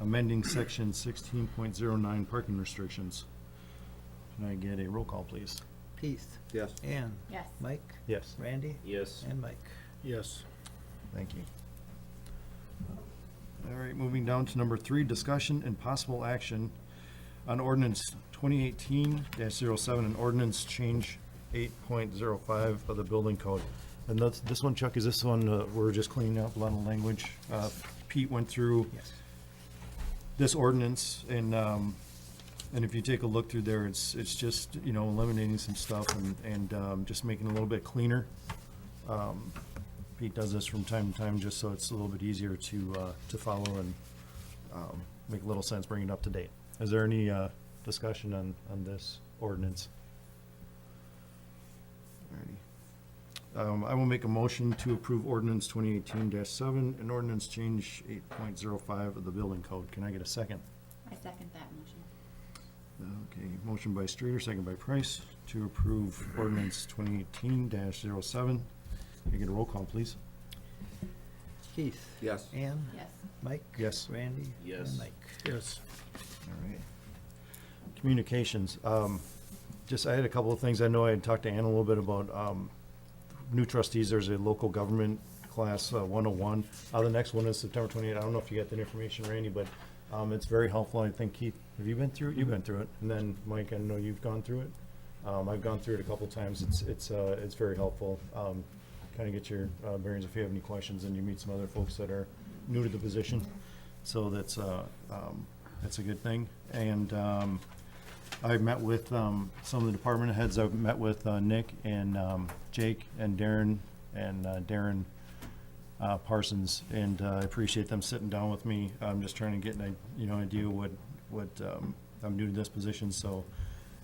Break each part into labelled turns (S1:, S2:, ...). S1: amending section sixteen point zero nine parking restrictions. Can I get a roll call, please?
S2: Keith,
S3: Yes.
S2: Ann,
S4: Yes.
S2: Mike,
S1: Yes.
S2: Randy,
S3: Yes.
S2: and Mike.
S3: Yes.
S1: Thank you. All right, moving down to number three, discussion and possible action on ordinance twenty eighteen 7 and ordinance change eight point zero five of the building code. And that's, this one, Chuck, is this one, uh, we're just cleaning up a lot of language. Uh, Pete went through
S2: Yes.
S1: this ordinance and, um, and if you take a look through there, it's, it's just, you know, eliminating some stuff and, and, um, just making it a little bit cleaner. Um, Pete does this from time to time just so it's a little bit easier to, uh, to follow and, um, make a little sense, bring it up to date. Is there any, uh, discussion on, on this ordinance? Alrighty. Um, I will make a motion to approve ordinance twenty eighteen seven and ordinance change eight point zero five of the building code. Can I get a second?
S4: I second that motion.
S1: Okay, motion by Streeter, second by Price to approve ordinance twenty eighteen 7 Can I get a roll call, please?
S2: Keith.
S3: Yes.
S2: Ann,
S4: Yes.
S2: Mike.
S1: Yes.
S2: Randy.
S3: Yes.
S2: And Mike.
S3: Yes.
S1: All right. Communications, um, just, I had a couple of things. I know I had talked to Ann a little bit about, um, new trustees. There's a local government class, uh, one oh one. Uh, the next one is September twenty-eight. I don't know if you got that information, Randy, but, um, it's very helpful. I think Keith, have you been through it? You've been through it. And then, Mike, I know you've gone through it. Um, I've gone through it a couple times. It's, it's, uh, it's very helpful. Um, kind of get your, uh, bearings if you have any questions and you meet some other folks that are new to the position. So that's, uh, um, that's a good thing. And, um, I've met with, um, some of the department heads. I've met with, uh, Nick and, um, Jake and Darren and, uh, Darren, uh, Parsons. And, uh, I appreciate them sitting down with me. I'm just trying to get an, i- you know, idea what, what, um, I'm new to this position, so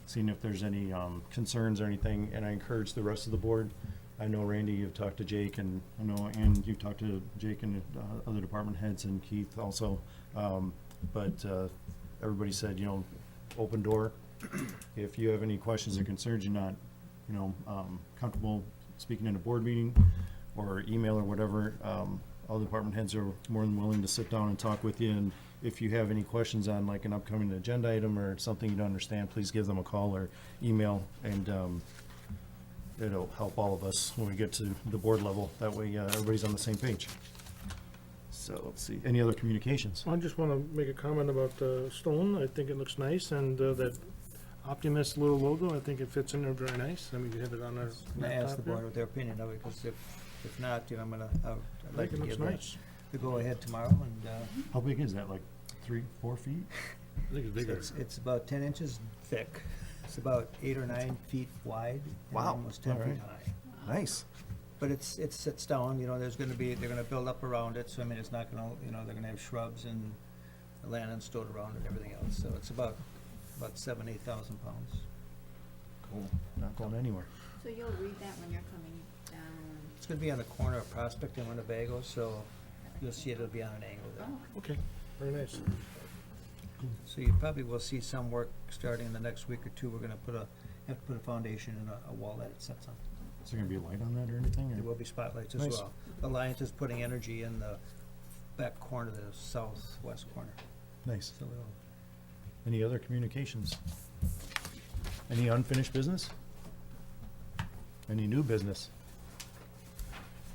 S1: seeing if there's any, um, concerns or anything. And I encourage the rest of the board. I know Randy, you've talked to Jake and, I know, and you've talked to Jake and, uh, other department heads and Keith also. Um, but, uh, everybody said, you know, open door. If you have any questions or concerns, you're not, you know, um, comfortable speaking in a board meeting or email or whatever, um, all department heads are more than willing to sit down and talk with you. And if you have any questions on like an upcoming agenda item or something you don't understand, please give them a call or email and, um, it'll help all of us when we get to the board level. That way, uh, everybody's on the same page. So let's see, any other communications?
S5: I just want to make a comment about the stone. I think it looks nice, and uh, that Optimist little logo, I think it fits in there very nice. I mean, you have it on our
S2: I'm gonna ask the
S5: laptop
S2: board
S5: here.
S2: what their opinion of it, because if, if not, you know, I'm gonna, I would- I'd
S5: I
S2: like
S5: think
S2: to
S5: it looks
S2: give the,
S5: nice.
S2: the go-ahead tomorrow, and, uh,
S1: How big is that, like three, four feet?
S5: I think it's bigger.
S2: It's, it's about ten inches thick. It's about eight or nine feet wide and
S1: Wow,
S2: almost ten
S1: all
S2: feet
S1: right.
S2: high.
S1: Nice.
S2: But it's, it sits down, you know, there's gonna be, they're gonna build up around it, so I mean, it's not gonna, you know, they're gonna have shrubs and land stowed around and everything else, so it's about, about seven, eight thousand pounds.
S1: Not going anywhere.
S4: So you'll read that when you're coming down.
S2: It's gonna be on the corner of Prospect and Winnebago, so you'll see it'll be on an angle there.
S4: Oh,
S5: Okay, very nice.
S2: So you probably will see some work starting in the next week or two, we're gonna put a, have to put a foundation and a, a wall that it sits on.
S1: Is there gonna be a light on that or anything? or-
S2: There will be spotlights as
S1: Nice.
S2: well. Alliance is putting energy in the back corner, the southwest corner,
S1: Nice.
S2: so it'll
S1: Any other communications? Any unfinished business? Any new business?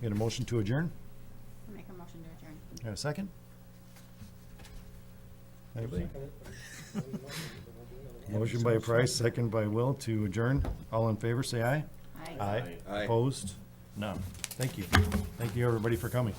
S1: Get a motion to adjourn?
S4: I'll Make a motion to adjourn.
S1: Got a second? Anybody? Motion by Price, second by Will to adjourn. All in favor, say aye.
S4: Aye.
S1: Aye.
S3: Aye.
S1: Opposed? None. Thank you. Thank you, everybody, for coming.